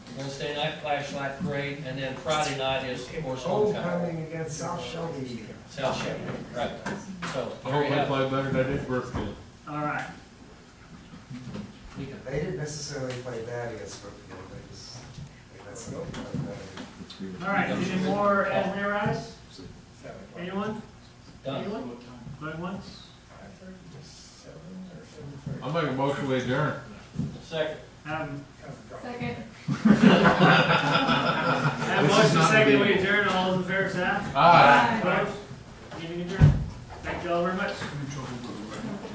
Wednesday night flashlight parade, and then Friday night is horse homecoming. Homecoming against South Shelby. South Chevy, right. So, there I you hope I have it. play better than I did first game. All right, We can- They didn't necessarily play bad against Brookfield, they just, they got some better. all right, any more as mayor eyes? Anyone? Done. Anyone? Going once? I'm making a motion to adjourn. Second. Um, Second. have a motion second, we adjourn, all those in favor, say aye. Aye. Opposed?